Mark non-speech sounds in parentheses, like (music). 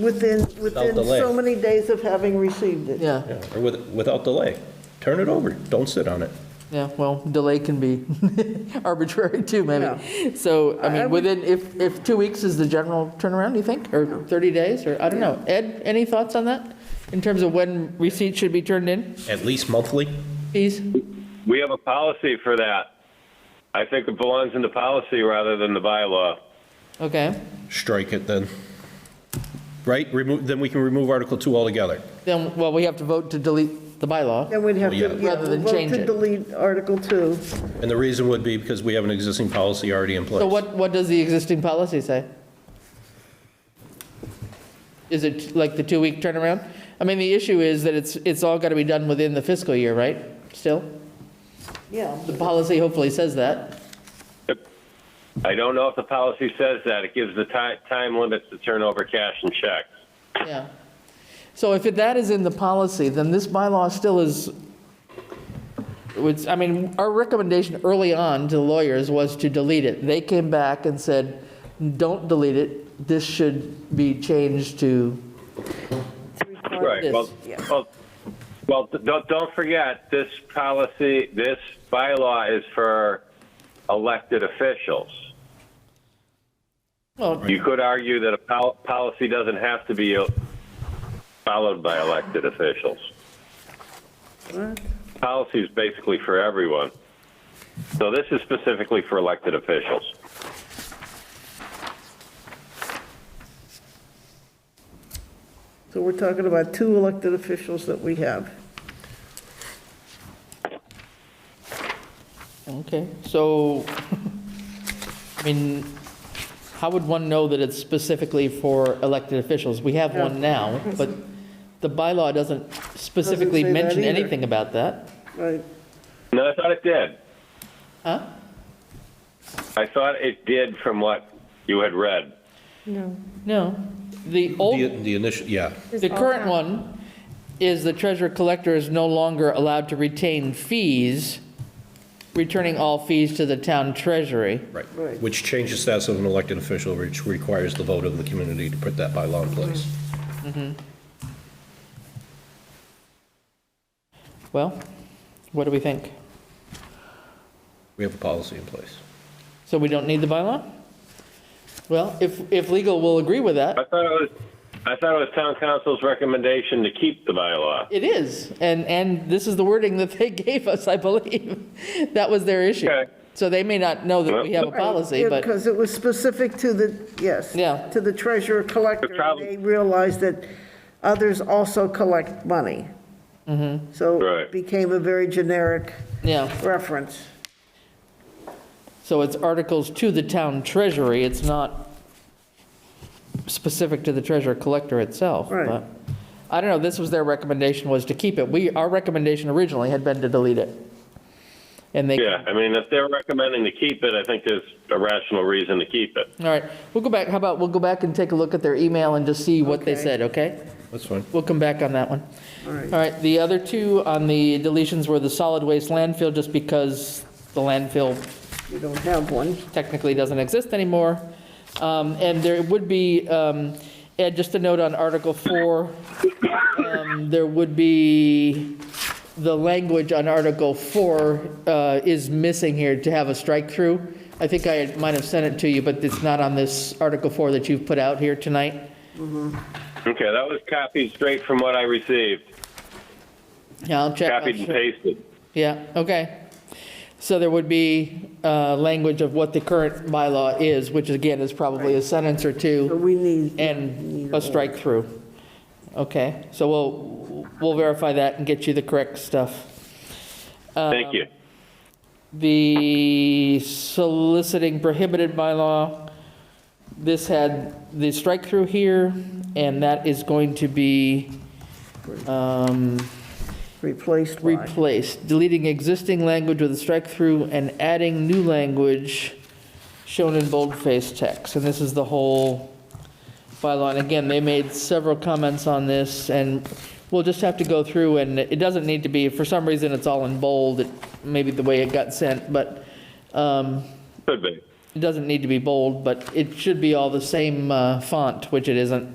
Within, within delay. so many days of having received it. Yeah, Yeah, Or with- without delay. Turn it over, don't sit on it. yeah, well, delay can be (laughs) arbitrary too, maybe. So, I I- I mean, would- within, if, if two weeks is the general turnaround, do you think? Or 30 days, or, I don't know. Ed, any thoughts on that? In terms of when receipts should be turned in, At least monthly? please? We have a policy for that. I think it belongs in the policy rather than the bylaw. Okay, Strike it then. Right? Remove, then we can remove Article 2 altogether. then, well, we have to vote to delete the bylaw. Then we'd have to, Well, yeah, yeah. Rather than vote change to it. delete Article 2. And the reason would be because we have an existing policy already in place. So what, what does the existing policy say? Is it like the two-week turnaround? I mean, the issue is that it's, it's all got to be done within the fiscal year, right? Still? Yeah. The policy hopefully says that. I don't know if the policy says that. It gives the ti- time limits to turn over cash and checks. Yeah. So if that is in the policy, then this bylaw still is, which, I mean, our recommendation early on to the lawyers was to delete it. They came back and said, don't delete it, this should be changed to, Right, well, yeah. well, well, th- don't, don't forget, this policy, this bylaw is for elected officials. well, You could argue that a pol- policy doesn't have to be uh, followed by elected officials. Policy is basically for everyone. So this is specifically for elected officials. So we're talking about two elected officials that we have. okay, so, I mean, how would one know that it's specifically for elected officials? We have one now, but the bylaw doesn't specifically say that mention either. anything about that. Right. No, I thought it did. Huh? I thought it did from what you had read. No. No, the The old, the initial, yeah. the current one is the treasurer collector is no longer allowed to retain fees, returning all fees to the town treasury. Right. Right. Which changes the status of an elected official, which requires the vote of the community to put that bylaw in place. Well, what do we think? We have a policy in place. So we don't need the bylaw? Well, if, if legal will agree with I that, thought it was, I thought it was town council's recommendation to keep the bylaw. it is. And, and this is the wording that they (laughs) gave us, I believe. That was their issue. Okay. So they may not know that we have a policy, but, Because it was specific to the, yes. Yeah. To the treasurer collector. The problem- They realized that others also collect money. Mm-hmm. So Right. it became a very generic yeah. reference. So it's articles to the town treasury, it's not specific to the treasurer collector itself. Right. but- I don't know, this was their recommendation, was to keep it. We, our recommendation originally had been to delete it. And they, all Yeah, I mean, if they're recommending to keep it, I think there's a rational reason to keep it. right, we'll go back, how about, we'll go back and take a look at their email and just see what they Okay. said, okay? That's fine. We'll come back on that one. All All right. right, the other two on the deletions were the solid waste landfill, just because the landfill We don't have one. technically doesn't exist anymore. Um, And there would be, um, Ed, just a note on Article 4, um, there would be, the language on Article 4 uh, is missing here to have a strike-through. I think I might have sent it to you, but it's not on this Article 4 that you've put out here tonight. Okay, that was copied straight from what I received, Yeah, I'll check. I'll copied and check. pasted. Yeah, okay. So there would be uh, language of what the current bylaw is, which again is probably a sentence or two. So we need. And a strike through. Okay, so we'll, we'll verify that and get you the correct stuff. Thank you. The soliciting prohibited bylaw, this had the strike through here, and that is going to be um, Replaced by. replaced, deleting existing language with a strike through and adding new language shown in boldface text. And this is the whole bylaw. And again, they made several comments on this, and we'll just have to go through, and it doesn't need to be, for some reason, it's all in bold, it- maybe the way it got sent, but um, Could be. It doesn't need to be bold, but it should be all the same uh, font, which it isn't.